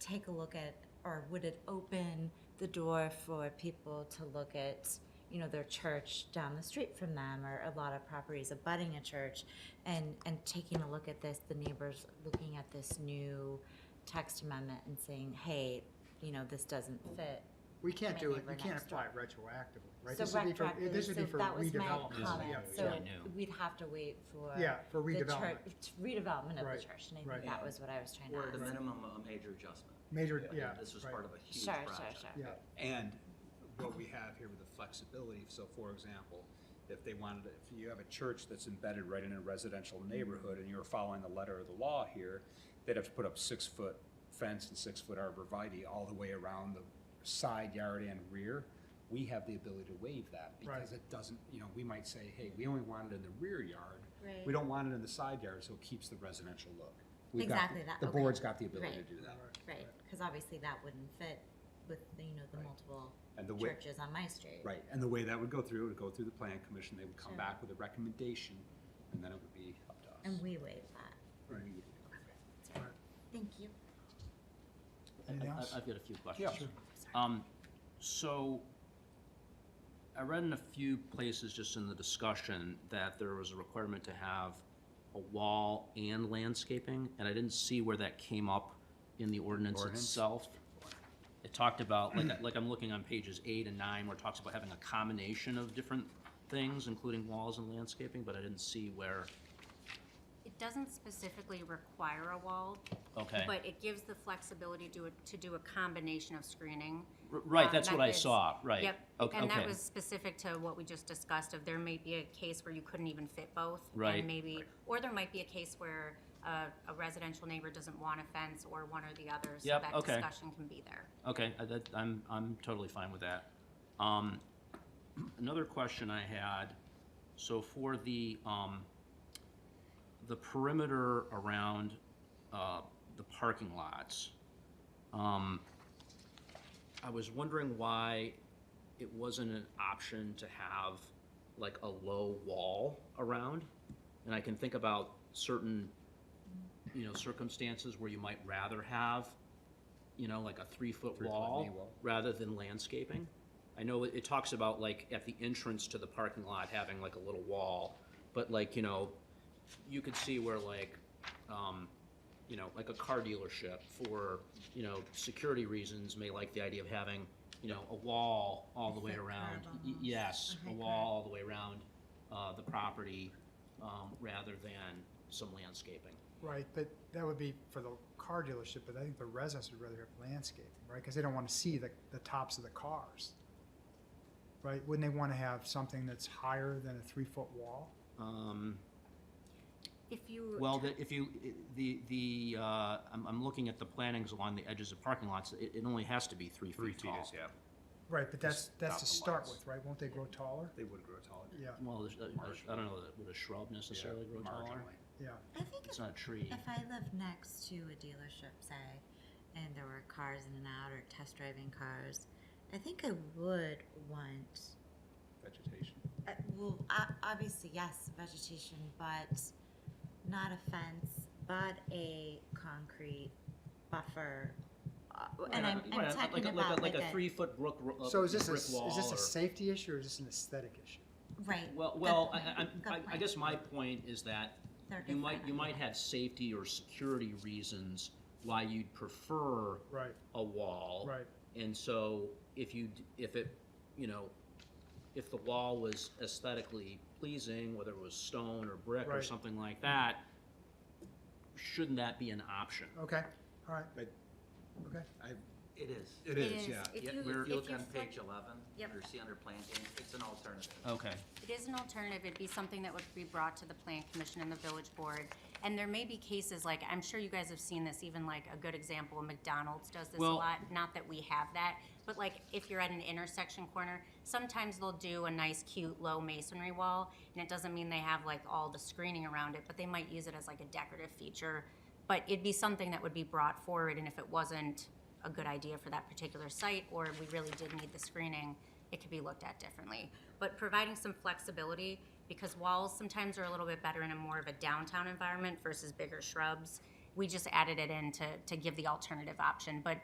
take a look at, or would it open the door for people to look at, you know, their church down the street from them, or a lot of properties abutting a church, and, and taking a look at this, the neighbors looking at this new text amendment and saying, hey, you know, this doesn't fit. We can't My do it, neighbor we can't next apply it retroactively, right? So This would be for, retroactively, this would be so for that was my redevelopment. This is comment. Yeah, So yeah. new. we'd have to wait for. Yeah, for the church- redevelopment, Redevelopment of Right, the church, and I right. think that was what I was trying to Or at a ask. minimum, a major adjustment. major, Like, yeah, This was right. part of a huge Sure, sure, project. sure. yeah, And what we have here with the flexibility, so for example, if they wanted, if you have a church that's embedded right in a residential neighborhood and you're following the letter of the law here, they'd have to put up six-foot fence and six-foot arborvitae all the way around the side yard and rear. We have the ability to waive that because Right. it doesn't, you know, we might say, hey, we only want it in the rear yard. Right. We don't want it in the side yard, so it keeps the residential look. We've got the- Exactly that, The okay. board's got the ability to Right. do that. Right, because obviously that wouldn't fit with, the, you know, the Right. multiple And the way, churches on my street. Right, and the way that would go through, it would go through the plan commission, they would come Sure. back with a recommendation, and then it would be up to us. And we waive that. Right. Thank you. I- Anything I- else? I've got a few questions. sure. Um, so, I read in a few places just in the discussion that there was a requirement to have a wall and landscaping, and I didn't see where that came up in the ordinance Ordinance? itself. It talked about, like, like I'm looking on pages eight and nine, where it talks about having a combination of different things, including walls and landscaping, but I didn't see where, It doesn't specifically require a wall, okay. but it gives the flexibility to, to do a combination of screening. R- Right, uh, that's what I methods. saw, right. Yep, Ok- and that okay. was specific to what we just discussed, of there may be a case where you couldn't even fit both. Right. And maybe, or there might be a case where a, a residential neighbor doesn't want a fence or one or the other, so Yep, that okay. discussion can be there. Okay, I- that, I'm, I'm totally fine with that. Um, another question I had, so for the, um, the perimeter around, uh, the parking lots, um, I was wondering why it wasn't an option to have like a low wall around. And I can think about certain, you know, circumstances where you might rather have, you know, like a three-foot Three-foot knee wall wall. rather than landscaping. I know it, it talks about like at the entrance to the parking lot having like a little wall, but like, you know, you could see where like, um, you know, like a car dealership for, you know, security reasons may like the idea of having, you know, a wall all the way Like curb around. Y- almost, Yes, a a high wall all the way around, uh, the property, um, rather than some landscaping. Right, but that would be for the car dealership, but I think the residents would rather have landscaping, right? Because they don't want to see the, the tops of the cars. Right, wouldn't they want to have something that's higher than a three-foot wall? Um, If you. well, the, if you, i- the, the, uh, I'm, I'm looking at the plantings along the edges of parking lots, it, it only has to be three Three feet feet tall. is, yeah, Right, but that's, Just that's top to the start lights. with, right? Won't they grow taller? they would grow taller. Yeah, Well, there's, uh, there's- I don't know, would a shrub necessarily Yeah, grow taller? marginally. yeah. I think It's not a tree. If I lived next to a dealership, say, and there were cars in and out or test driving cars, I think I would want, Vegetation. uh, well, o- obviously, yes, vegetation, but not a fence, but a concrete buffer. Uh, And I'm, Right, I'm like a- talking like a- about Like a three-foot brook, uh, So is this a, brick s- wall is this or- a safety issue or is this an aesthetic issue? right. Well, good well, I- point, I, good I, I point. guess my point is that They're you might, different. you might have safety or security reasons why you'd prefer Right, a wall. right. And so if you, d- if it, you know, if the wall was aesthetically pleasing, whether it was stone or brick or Right. something like that, shouldn't that be an option? Okay, all right, But okay. It is. it is, yeah. If Yeah, you, we're- if If you you look on flip- page eleven, Yep. under see under plantings, it's an alternative. Okay. It is an alternative, it'd be something that would be brought to the plan commission and the village board. And there may be cases, like, I'm sure you guys have seen this, even like a good example, McDonald's does this a Well- lot, not that we have that, but like, if you're at an intersection corner, sometimes they'll do a nice cute low masonry wall, and it doesn't mean they have like all the screening around it, but they might use it as like a decorative feature. But it'd be something that would be brought forward, and if it wasn't a good idea for that particular site, or we really did need the screening, it could be looked at differently. But providing some flexibility, because walls sometimes are a little bit better in a more of a downtown environment versus bigger shrubs. We just added it in to, to give the alternative option, but